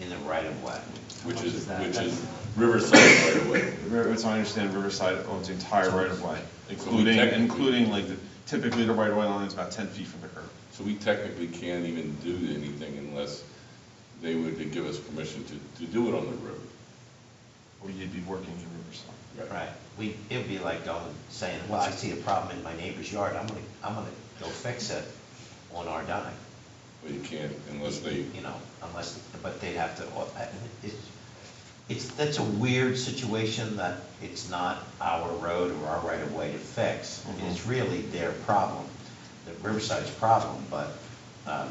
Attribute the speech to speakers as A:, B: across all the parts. A: in the right of way. How
B: which
A: much
B: is,
A: that?
B: which
A: That's-
B: is Riverside right away.
C: River- As I understand, Riverside owns the entire right of way, including,
B: technically-
C: including like the- typically the right of way line is about ten feet from the curb.
B: So we technically can't even do anything unless they would give us permission to, to do it on the river.
C: Or you'd be working in Riverside.
A: Right, we, it'd be like going, saying, well, I see a problem in my neighbor's yard, I'm gonna, I'm gonna go fix it on our dime.
B: But you can't unless they,
A: You know, unless, but they'd have to, uh, it's, it's, that's a weird situation that it's not our road or our right of way to fix. It's really their problem, the Riverside's problem, but, um,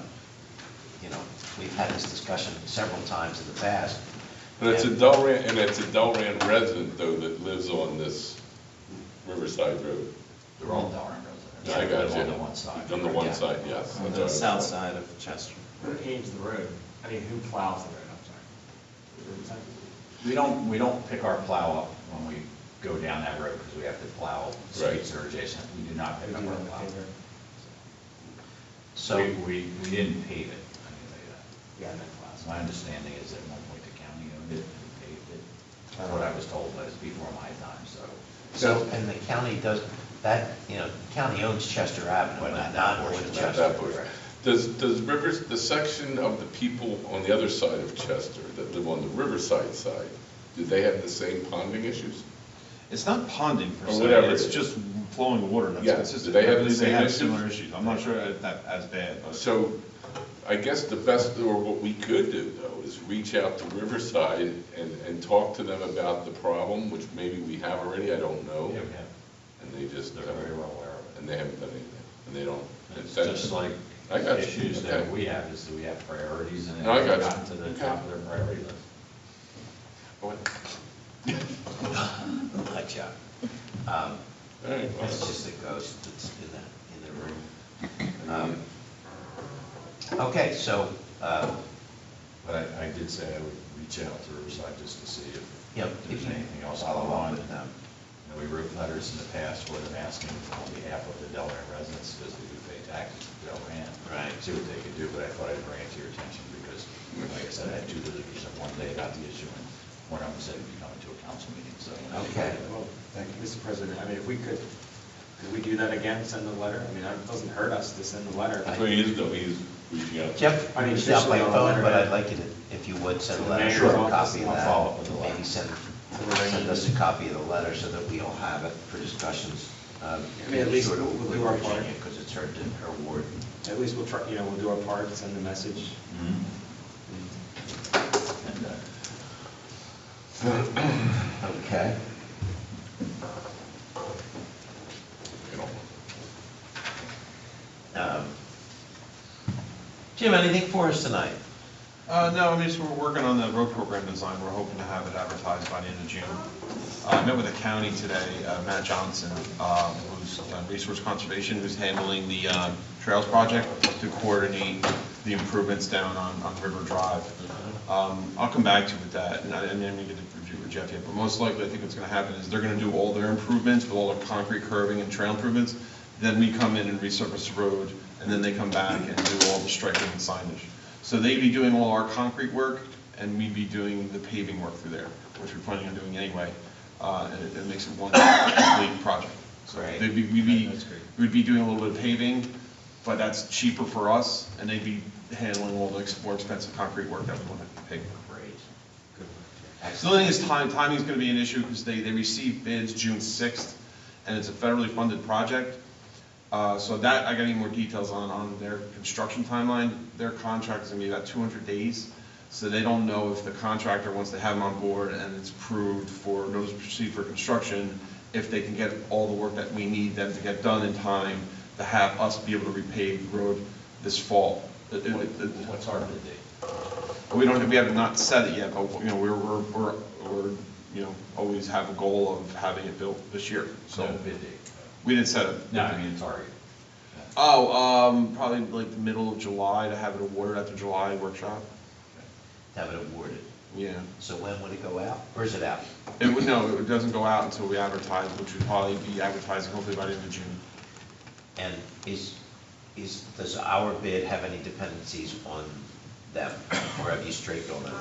A: you know, we've had this discussion several times in the past.
B: but it's a
A: And-
B: Delran, and it's a Delran resident though that lives on this Riverside Road.
D: They're all Delran residents.
B: I got you.
D: On the one side.
B: On the one
D: Yeah.
B: side, yes.
E: on the south side of Chester.
F: Who paves the road? I mean, who plows the road, I'm sorry? Is it
D: We don't, we don't pick our plow up when we go down that road because we have to plow streets that are adjacent. We do not pick
F: Who
D: up
F: do you
D: our
F: want to
D: plow.
F: pave it?
A: So.
D: We, we, we didn't pave it. I can tell you that.
F: Yeah, I meant plows.
D: My understanding is at one point the county owned it and paved it. That's what I was told, but it's before my time, so.
A: So, and the county does, that, you know, county owns Chester Avenue,
D: But
A: but not
D: not that portion,
A: with
B: Not
D: not
A: Chester.
B: that portion. Does, does Rivers, the section of the people on the other side of Chester that live on the Riverside side, do they have the same ponding issues?
C: It's not ponding per
B: Or
C: se,
B: whatever it
C: it's
B: is.
C: just flowing water
B: Yeah,
C: that's
B: do
C: consistent.
B: they have
C: I
B: the
C: believe
B: same
C: have
B: issues?
C: Similar issues, I'm not sure if that as bad, but
B: So I guess the best, or what we could do though, is reach out to Riverside and, and talk to them about the problem, which maybe we have already, I don't know.
D: Yeah, we have.
B: And they just,
D: They're very well aware of it.
B: and they haven't done anything, and they don't.
D: It's just like
B: I got you.
D: issues that
B: Okay.
D: we have, is that we have priorities and
B: No, I
D: they've
B: got you.
D: gotten to the
B: Okay.
D: top of their priority list.
B: All right,
A: Hot shot. Um,
B: well,
A: It's just a ghost that's in the, in the room. Um, Okay, so, uh,
D: But I, I did say I would reach out to Riverside just to see if
A: Yeah,
D: there's
A: if you-
D: anything else I'll along with them. You know, we wrote letters in the past where they're asking on behalf of the Delran residents, because they do pay taxes to Delran.
A: Right.
D: See what they could do, but I thought I'd bring it to your attention, because like I said, I had two visitors and one day about the issue, and one of them said he'd be coming to a council meeting, so.
A: Okay.
F: Well, thank you, Mr. President, I mean, if we could, could we do that again, send a letter? I mean, it doesn't hurt us to send a letter.
B: That's what he is though, he's reaching out. to-
A: Jeff,
F: I mean,
A: reached out by
F: officially on a
A: phone,
F: letter.
A: but I'd like you to, if you would, send a
F: To the
A: letter, sure,
F: mayor's office,
A: copy of
D: I'll
A: that.
D: follow up with the letter.
A: Maybe send,
F: the mayor's-
A: send us a copy of the letter so that we all have it for discussions. Um,
F: I mean, at least
A: sure to
F: we'll do
A: include
F: our
A: Virginia,
F: part.
A: Because it's her, her ward.
F: At least we'll try, you know, we'll do our part, send the message.
D: Mhm. And, uh,
A: Okay.
B: You know.
A: Um, Jim, anything for us tonight?
C: Uh, no, I mean, so we're working on the road program design, we're hoping to have it advertised by the end of June. Uh, I met with the county today, uh, Matt Johnson, um, who's on Resource Conservation, who's handling the um, Trails Project to coordinate the improvements down on, on River Drive. Um, I'll come back to you with that, and I, and then we get to review with Jeff yet, but most likely, I think what's gonna happen is they're gonna do all their improvements with all the concrete curving and trail improvements, then we come in and resurface the road, and then they come back and do all the striping and signage. So they'd be doing all our concrete work, and we'd be doing the paving work through there, which we're planning on doing anyway, uh, and it- it makes it one complete project. So
A: Great.
C: They'd be, we'd be,
E: That's great.
C: we'd be doing a little bit of paving, but that's cheaper for us, and they'd be handling all the ex- more expensive concrete work that we want to pay for.
A: Great.
C: The only thing is time, timing's gonna be an issue, because they, they receive bids June sixth, and it's a federally funded project. Uh, so that, I got any more details on, on their construction timeline, their contract is gonna be about two hundred days, so they don't know if the contractor, once they have them on board and it's approved for notice to proceed for construction, if they can get all the work that we need them to get done in time to have us be able to repave the road this fall. It- it- it-
D: What's our bid date?
C: we don't, we have not said it yet, but, you know, we're, we're, we're, we're, you know, always have a goal of having it built this year, so.
D: No bid date.
C: We didn't set it.
D: No, I mean, target.
C: Oh, um, probably like the middle of July to have it awarded at the July workshop,
A: Have it awarded.
C: yeah.
A: So when would it go out? Or is it out?
C: It would, no, it doesn't go out until we advertise, which would probably be advertising hopefully by the end of June.
A: And is, is, does our bid have any dependencies on them? Or have you straight gone out?